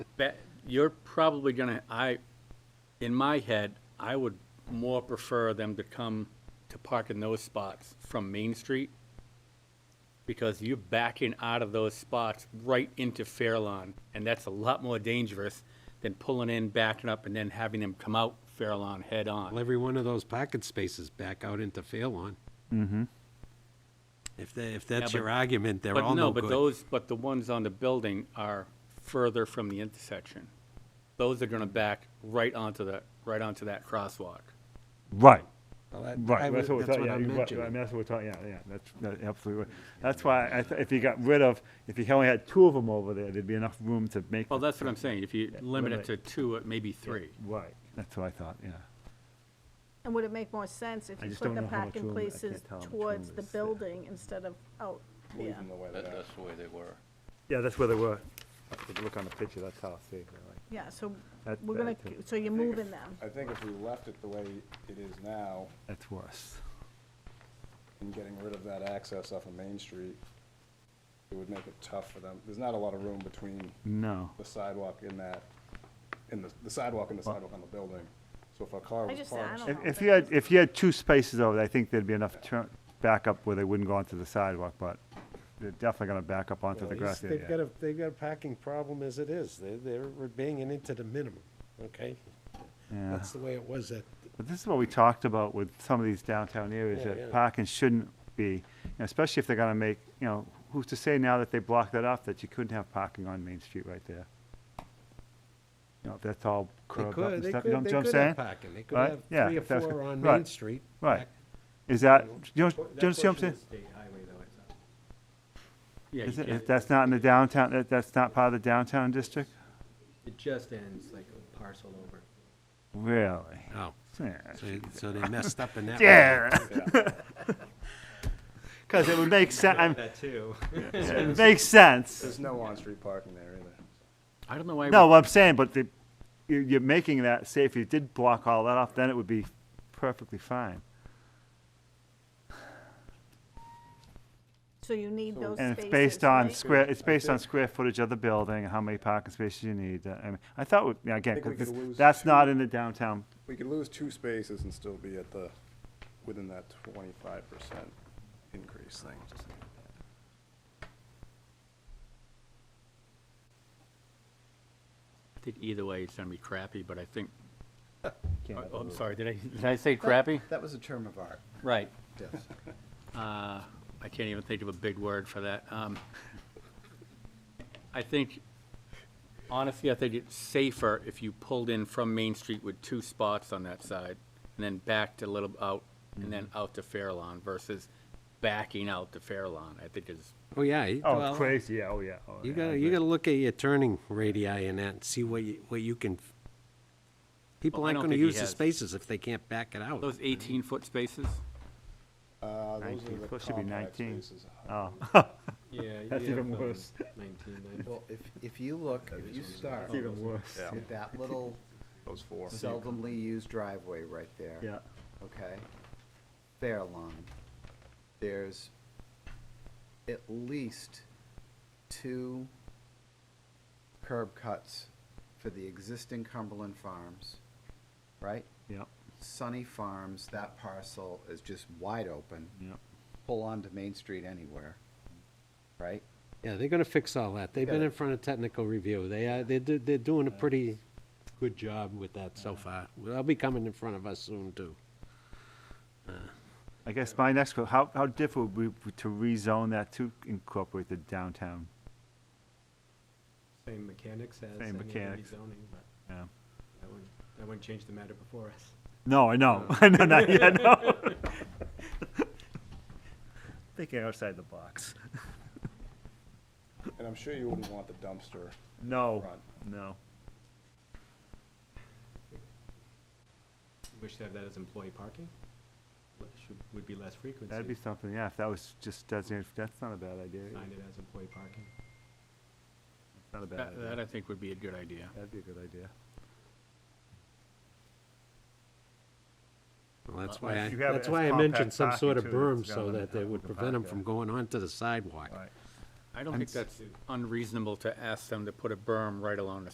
Ba- You're probably gonna, I, in my head, I would more prefer them to come to park in those spots from Main Street. Because you're backing out of those spots right into Fairlawn, and that's a lot more dangerous than pulling in, backing up, and then having them come out Fairlawn Well, head-on. every one of those pocket spaces back out into Fairlawn. Mm-hmm. If they, if that's but- your argument, they're But all no no, but good. those, but the ones on the building are further from the intersection. Those are gonna back right onto the, right onto that crosswalk. Right, Well, that- I right. would- That's what we're talking, yeah, I'm you- right, I mentioning. mean, that's what we're talking, yeah, yeah, that's, that- absolutely. right. That's why, I th- if you got rid of, if you only had two of them over there, there'd be enough room to make. Well, the- that's what I'm saying, if you limit it to two, it maybe three. Right, that's what I thought, yeah. And would it make more sense if I you just put don't the know how much parking room- I can't places tell how much room towards the is there. building instead of out there? That, that's the way they were. Yeah, that's where they were. If you look on the picture, that's how it's saved, right? Yeah, so That- we're gonna, that too. so you're moving them. I think if we left it the way it is now, That's worse. and getting rid of that access off of Main Street, it would make it tough for them. There's not a lot of room between No. the sidewalk in that, in the, the sidewalk and the sidewalk on the building. So if a car I was just, I parked, don't know. If, if but you had, if you had two spaces over there, I think there'd be enough turn, backup where they wouldn't go onto the sidewalk, but they're definitely gonna back up onto the Well, grass he's- They've area. got a, they've got a parking problem as it is. They're, they're we're banging into the minimum, okay? Yeah. That's the way it was at, But this is what we talked about with some of these downtown areas, Yeah, yeah. that parking shouldn't be, you know, especially if they're gonna make, you know, who's to say now that they blocked that off, that you couldn't have parking on Main Street right there? You know, if that's all they curved up could, and they stuff, you know could, what they I'm could have saying? parking. They could Right? have Yeah, three or that's four good. on Right. Main Street. Right. back- Is that, you know, do you understand what I'm saying? Yeah, Is you it, if can't- that's not in the downtown, that, that's not part of the downtown district? it just ends like a parcel over. Really? Oh, Yeah. so- so they messed up in that. one. Yeah. Because it would make sense. That too. It makes sense. there's no on-street parking there either. I don't know why. we- No, what I'm saying, but the, you- you're making that, say if you did block all that off, then it would be perfectly fine. So you need those spaces, And it's based on right? square, it's based on square footage of the building, and how many parking spaces you need. uh, I mean, I thought, we- yeah, again, think we 'cause could this- lose that's two- not in the downtown. We could lose two spaces and still be at the, within that twenty-five percent increase thing. I think either way, it's gonna be crappy, but I think, Can't oh, I'm sorry, did I, did I say crappy? That was a term of art, Right. yes. Uh, I can't even think of a big word for that. Um, I think, honestly, I think it's safer if you pulled in from Main Street with two spots on that side and then backed a little out and Mm-hmm. then out to Fairlawn versus backing out to Fairlawn. I think is, Oh, yeah. y- Oh, well, it's crazy, yeah, oh, yeah. oh, You yeah, I gotta, agree. you gotta look at your turning radii and that and see what you, what you can. f- People Well, I aren't don't gonna think he use the has- spaces if they can't back it out. those 18-foot spaces? Uh, those 19. are the Supposed to be compact 19. spaces. Oh. Yeah. That's even worse. Nineteen, Well, if, if you look, if you start It's even worse. Yeah. with that little Those four. seldomly used driveway right there. Yeah, Okay? Fair lawn. There's at least two curb cuts for the existing Cumberland Farms, right? yeah, Sunny Farms, that parcel is just wide open. yeah. Pull onto Main Street anywhere, right? Yeah, they're gonna fix all that. They've been in front of technical review. They, uh, they're, do- they're doing a pretty good job with that so far. They'll be coming in front of us soon too. I guess my next, que- how, how difficult would be to rezone that to incorporate the downtown? same mechanics as Same any other mechanics. rezoning, but Yeah. that wouldn't, that wouldn't change the matter before us. No, I know, I know, not yet, no. Thinking outside the box. And I'm sure you wouldn't want the dumpster. No, Right. no. Wish to have that as employee parking, which should- would be less frequency. That'd be something, yeah, if that was just designated, that's not a bad idea. Sign it as employee parking. Not a bad That, that idea. I think would be a good idea. That'd be a good idea. Well, that's Well, why if I, you have it that's as why I mentioned compact some sort of parking, too, berm it's so gonna that they help would the prevent them park, from yeah. going onto the sidewalk. Right. I don't think that's unreasonable to ask them to put a berm right along the